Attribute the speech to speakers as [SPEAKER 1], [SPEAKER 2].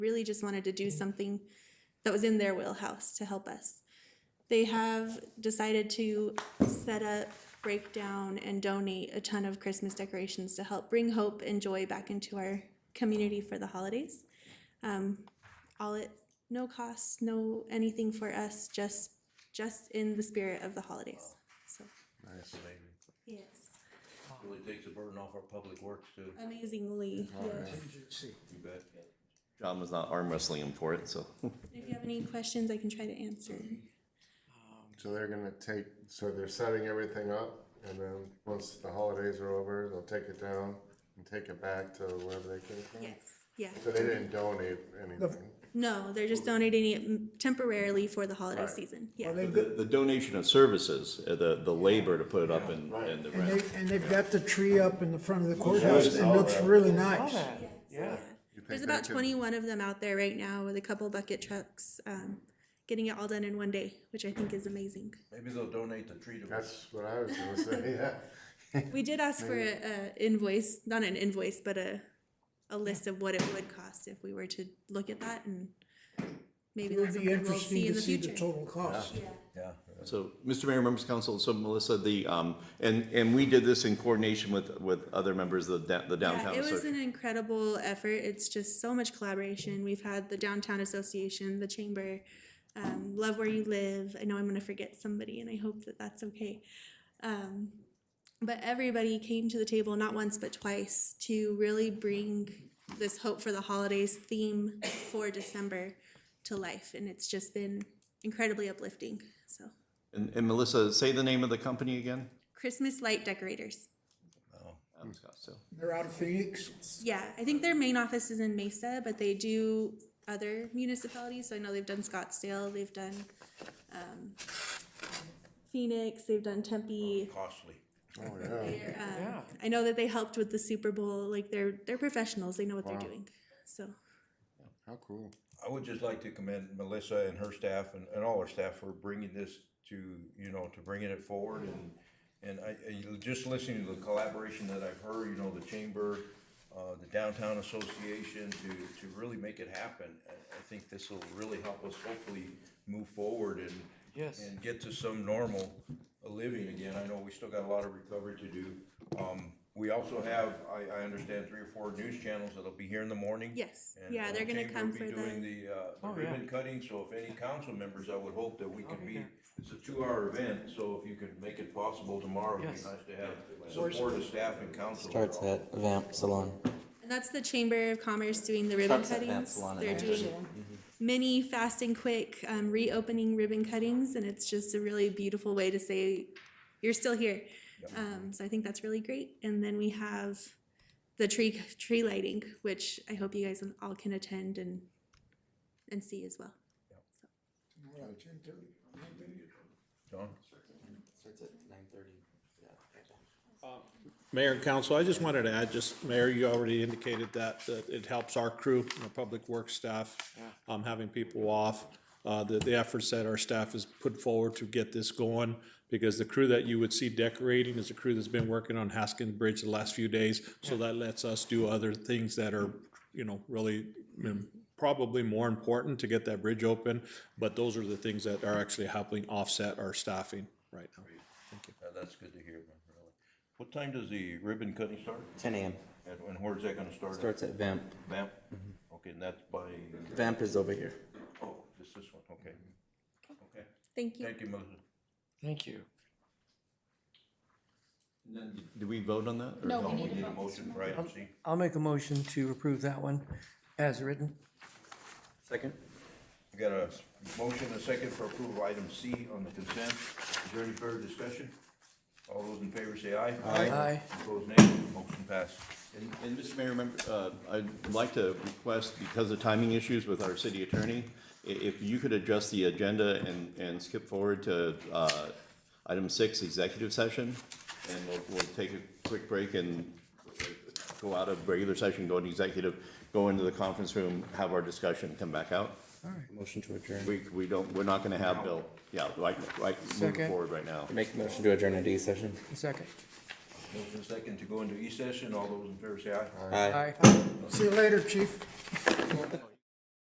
[SPEAKER 1] really just wanted to do something that was in their wheelhouse to help us. They have decided to set up, break down, and donate a ton of Christmas decorations to help bring hope and joy back into our community for the holidays. Um, all at no cost, no anything for us, just just in the spirit of the holidays. So
[SPEAKER 2] Nice.
[SPEAKER 1] yes,
[SPEAKER 2] Really takes the burden off our public works too.
[SPEAKER 1] amazingly. Yes.
[SPEAKER 2] You bet.
[SPEAKER 3] John was not arm wrestling him for it, so.
[SPEAKER 1] If you have any questions, I can try to answer.
[SPEAKER 4] So they're gonna take, so they're setting everything up, and then once the holidays are over, they'll take it down and take it back to wherever they came from.
[SPEAKER 1] Yeah.
[SPEAKER 4] So they didn't donate anything.
[SPEAKER 1] No, they're just donating it temporarily for the holiday
[SPEAKER 4] Right.
[SPEAKER 1] season. Yeah.
[SPEAKER 5] Well,
[SPEAKER 3] The, the donation of services, uh, the, the labor to put it up and,
[SPEAKER 4] Right.
[SPEAKER 3] and the
[SPEAKER 5] And
[SPEAKER 3] rent.
[SPEAKER 5] they, and they've got the tree up in the front of the courthouse, and it looks really nice.
[SPEAKER 1] Yeah.
[SPEAKER 4] You think
[SPEAKER 1] There's
[SPEAKER 4] they
[SPEAKER 1] about
[SPEAKER 4] could-
[SPEAKER 1] 21 of them out there right now with a couple bucket trucks, um, getting it all done in one day, which I think is amazing.
[SPEAKER 2] Maybe they'll donate the tree to us.
[SPEAKER 4] That's what I was gonna say, yeah.
[SPEAKER 1] We did ask for a, a invoice, not an invoice, but a, a list of what it would cost if we were to look at that and maybe
[SPEAKER 5] It
[SPEAKER 1] that's
[SPEAKER 5] would be
[SPEAKER 1] something we'll
[SPEAKER 5] interesting
[SPEAKER 1] see in
[SPEAKER 5] to
[SPEAKER 1] the
[SPEAKER 5] see the
[SPEAKER 1] future.
[SPEAKER 5] total cost.
[SPEAKER 2] Yeah.
[SPEAKER 3] So, Mr. Mayor, members of council, so Melissa, the, um, and, and we did this in coordination with, with other members of the da- the
[SPEAKER 1] Yeah,
[SPEAKER 3] downtown.
[SPEAKER 1] it was
[SPEAKER 3] association.
[SPEAKER 1] an incredible effort. It's just so much collaboration. We've had the downtown association, the chamber, um, love where you live. I know I'm going to forget somebody, and I hope that that's okay. Um, but everybody came to the table not once but twice to really bring this hope for the holidays theme for December to life, and it's just been incredibly uplifting. So,
[SPEAKER 3] And, and Melissa, say the name of the company again?
[SPEAKER 1] Christmas light decorators.
[SPEAKER 3] Um, Scott, so.
[SPEAKER 5] They're out of Phoenix.
[SPEAKER 1] Yeah, I think their main office is in Mesa, but they do other municipalities. So I know they've done Scottsdale, they've done um, Phoenix, they've done Tempe.
[SPEAKER 2] Costly.
[SPEAKER 4] Oh, yeah.
[SPEAKER 1] They're, um, I know that they helped with the Super Bowl. Like they're they're professionals. They know what
[SPEAKER 4] Wow.
[SPEAKER 1] they're doing. So
[SPEAKER 4] How cool.
[SPEAKER 2] I would just like to commend Melissa and her staff and, and all her staff for bringing this to, you know, to bringing it forward and, and I, I- just listening to the collaboration that I've heard, you know, the chamber, uh, the downtown association to, to really make it happen. I, I think this will really help us hopefully move forward and.
[SPEAKER 6] Yes.
[SPEAKER 2] And get to some normal living again. I know we still got a lot of recovery to do. Um, we also have, I, I understand, three or four news channels that'll be here in the morning.
[SPEAKER 1] Yes.
[SPEAKER 2] And
[SPEAKER 1] Yeah,
[SPEAKER 2] the
[SPEAKER 1] they're gonna
[SPEAKER 2] chamber will
[SPEAKER 1] come
[SPEAKER 2] be
[SPEAKER 1] for
[SPEAKER 2] doing
[SPEAKER 1] the-
[SPEAKER 2] the, uh, the
[SPEAKER 6] Oh, yeah.
[SPEAKER 2] ribbon cutting, so if any council members, I would hope that we could be, it's a two-hour event, so if you could make it possible tomorrow, it'd be
[SPEAKER 6] Yes.
[SPEAKER 2] nice to have support of staff and council.
[SPEAKER 7] Starts at Vamp Salon.
[SPEAKER 1] and that's the Chamber of Commerce doing the ribbon
[SPEAKER 7] Starts at
[SPEAKER 1] cuttings.
[SPEAKER 7] Babylon and
[SPEAKER 1] They're doing many fast and quick um, reopening ribbon cuttings, and it's just a really beautiful way to say you're still here. Um, so I think that's really great. And then we have the tree tree lighting, which I hope you guys all can attend and and see as well.
[SPEAKER 2] John?
[SPEAKER 7] Starts at nine thirty.
[SPEAKER 8] Mayor and council, I just wanted to add, just, Mayor, you already indicated that, that it helps our crew, our public works staff, um, having people off. Uh, the, the efforts that our staff has put forward to get this going, because the crew that you would see decorating is a crew that's been working on Haskin Bridge the last few days. So that lets us do other things that are, you know, really mm, probably more important to get that bridge open. But those are the things that are actually helping offset our staffing right now.
[SPEAKER 2] Uh, That's good to hear, man, really. What time does the ribbon cutting start?
[SPEAKER 7] Ten AM.
[SPEAKER 2] And, and where's that gonna start? at?
[SPEAKER 7] Starts at Mm-hmm. Vamp.
[SPEAKER 2] Vamp? Okay, and that's by,
[SPEAKER 7] Vamp is over here.
[SPEAKER 2] oh, just this one, okay.
[SPEAKER 7] Mm-hmm.
[SPEAKER 2] Okay,
[SPEAKER 1] Thank you.
[SPEAKER 2] thank you, Melissa.
[SPEAKER 6] Thank you.
[SPEAKER 3] Did we vote on that? or-
[SPEAKER 2] No, we need a motion for item C.
[SPEAKER 6] I'll make a motion to approve that one as written.
[SPEAKER 7] Second?
[SPEAKER 2] We got a motion, and a second for approval of item C on the consent. Is there any further discussion? All those in favor say aye.
[SPEAKER 6] Aye.
[SPEAKER 2] Opposed, nay. Motion passed.
[SPEAKER 3] And, and Mr. Mayor, remember, uh, I'd like to request, because of timing issues with our city attorney, i- if you could address the agenda and, and skip forward to, uh, item six, executive session, and we'll, we'll take a quick break and go out of regular session, go into executive, go into the conference room, have our discussion, come back out.
[SPEAKER 7] Motion to adjourn.
[SPEAKER 3] We, we don't, we're not gonna have Bill, yeah, right, right, moving
[SPEAKER 6] Second.
[SPEAKER 3] forward right now.
[SPEAKER 7] Make a motion to adjourn at E session.
[SPEAKER 6] Second.
[SPEAKER 2] Motion and second to go into E session. All those in favor say aye.
[SPEAKER 7] Aye.
[SPEAKER 6] Aye. See you later, chief.